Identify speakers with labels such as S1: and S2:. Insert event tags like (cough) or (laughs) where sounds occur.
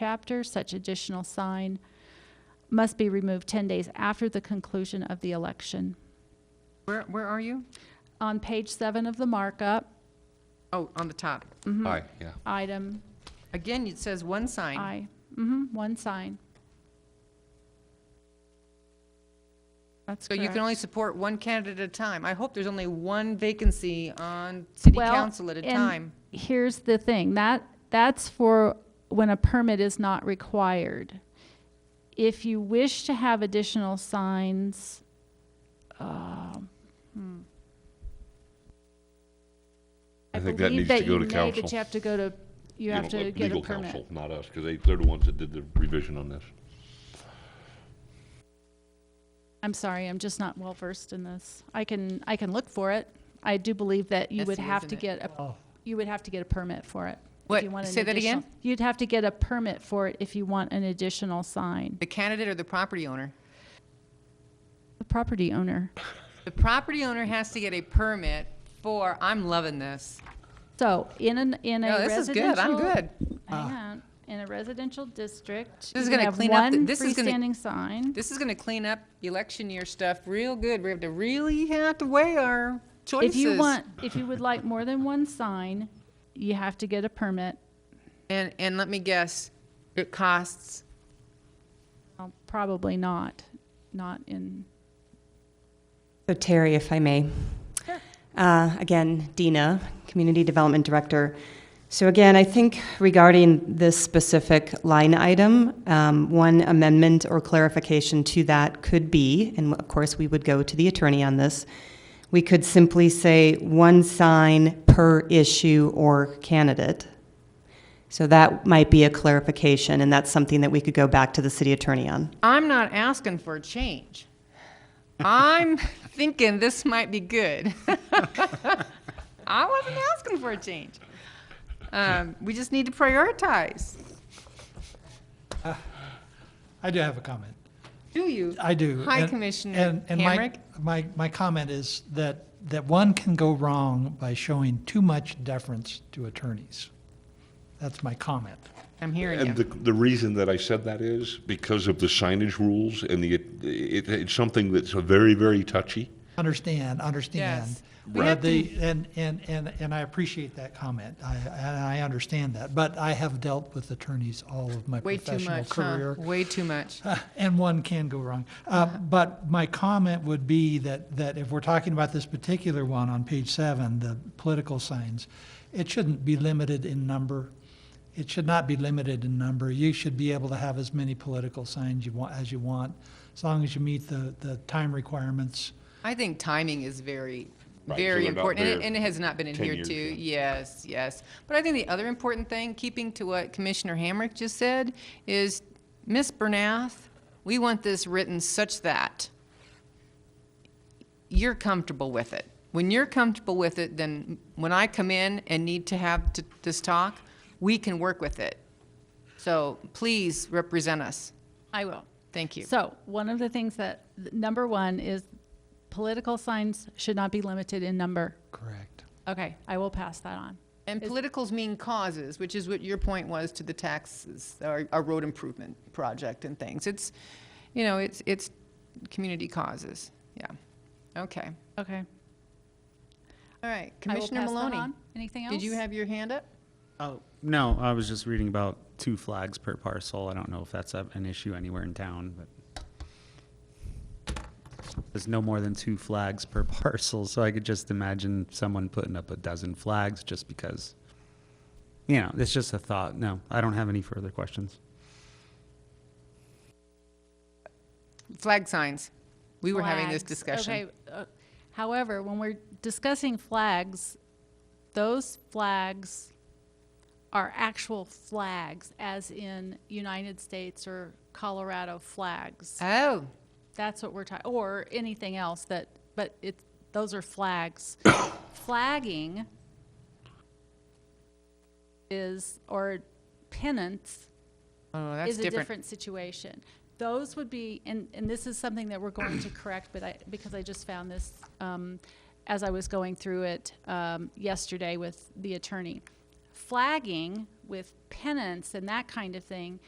S1: chapter, such additional sign must be removed 10 days after the conclusion of the election.
S2: Where, where are you?
S1: On page seven of the markup,
S2: Oh, on the top.
S1: Mm-hmm.
S3: Aye, yeah.
S1: item
S2: Again, it says one sign.
S1: I, hmm one sign. That's
S2: So you
S1: correct.
S2: can only support one candidate at a time. I hope there's only one vacancy on city
S1: Well,
S2: council at a
S1: and
S2: time.
S1: Here's the thing, that, that's for when a permit is not required. If you wish to have additional signs, um, hmm.
S3: I think that needs
S1: I
S3: to go to
S1: believe that you may,
S3: council.
S1: but you have to go to, you have
S3: know,
S1: to
S3: like
S1: get a
S3: legal
S1: permit.
S3: counsel, Not us, because they, they're the ones that did the revision on this.
S1: I'm sorry, I'm just not well versed in this. I can, I can look for it. I do believe that you would
S2: Messy,
S1: have to
S2: isn't it?
S1: get, a you would have to get a permit for it. if
S2: What?
S1: you want an
S2: Say that again?
S1: additional- You'd have to get a permit for it if you want an additional sign.
S2: The candidate or the property owner?
S1: The property owner.
S2: The property owner has to get a permit for, I'm loving this.
S1: So in an, in a
S2: No,
S1: residential.
S2: this is good, I'm good. Ah.
S1: Hang on. In a residential district.
S2: This is
S1: you
S2: gonna
S1: have
S2: clean up the-
S1: one
S2: this is gonna-
S1: Freestanding sign.
S2: This is gonna clean up election year stuff real good. We have to really have to weigh our choices.
S1: If you want, if you would like more than one sign, you have to get a permit.
S2: And, and let me guess, it costs,
S1: Well, Probably not, not in,
S4: So Terry, if I may. Uh, Again, Dina, Community Development Director. So again, I think regarding this specific line item, um, one amendment or clarification to that could be, and of course, we would go to the attorney on this, we could simply say one sign per issue or candidate. So that might be a clarification, and that's something that we could go back to the city attorney on.
S2: I'm not asking for a change. I'm (laughs) thinking this might be good. (laughs) I wasn't asking for a change. Um, we just need to prioritize.
S5: I do have a comment.
S2: Do you?
S5: I do.
S2: Hi,
S5: And-
S2: Commissioner
S5: and- and my-
S2: Hamrick.
S5: My, my comment is that, that one can go wrong by showing too much deference to attorneys. That's my comment.
S2: I'm hearing
S3: And
S2: you.
S3: the, the reason that I said that is because of the signage rules and the, it, it's something that's a very, very touchy.
S5: Understand, understand.
S2: Yes. We have
S5: But the- And, and, and, and I appreciate that comment. I, and I understand that. But I have dealt with attorneys all of my
S2: Way too
S5: professional
S2: much, huh?
S5: career.
S2: Way too much.
S5: Uh, And one can go wrong. Uh, But my comment would be that, that if we're talking about this particular one on page seven, the political signs, it shouldn't be limited in number. It should not be limited in number. You should be able to have as many political signs you want, as you want, as long as you meet the, the time requirements.
S2: I think timing is very,
S3: Right, so
S2: very
S3: they're not
S2: important, and it,
S3: there
S2: and it has not been in
S3: 10
S2: here
S3: years
S2: too.
S3: yet.
S2: Yes, yes. But I think the other important thing, keeping to what Commissioner Hamrick just said, is Ms. Bernath, we want this written such that you're comfortable with it. When you're comfortable with it, then when I come in and need to have t- this talk, we can work with it. So please represent us.
S1: I will.
S2: Thank you.
S1: So, one of the things that, number one is political signs should not be limited in number.
S5: Correct.
S1: Okay, I will pass that on.
S2: And politicals mean causes, which is what your point was to the taxes, our, our road improvement project and things. It's, you know, it's, it's community causes, yeah. Okay,
S1: Okay.
S2: all right,
S1: I will
S2: Commissioner
S1: pass that
S2: Maloney.
S1: on. Anything else?
S2: Did you have your hand up?
S6: Oh, no, I was just reading about two flags per parcel. I don't know if that's a- an issue anywhere in town, but there's no more than two flags per (laughs) parcel, so I could just imagine someone putting up a dozen flags just because, you know, it's just a thought. No, I don't have any further questions.
S2: Flag signs. We were having
S1: Flags.
S2: this discussion.
S1: Okay, uh, However, when we're discussing flags, those flags are actual flags, as in United States or Colorado flags.
S2: Oh,
S1: That's what we're talking, or anything else that, but it, those are flags. Flagging is, or pennants
S2: oh, that's
S1: is a
S2: different.
S1: different situation. Those would be, and, and this is something that we're going to correct, but I, because I just found this, um, as I was going through it, um, yesterday with the attorney. flagging with pennants and that kind of thing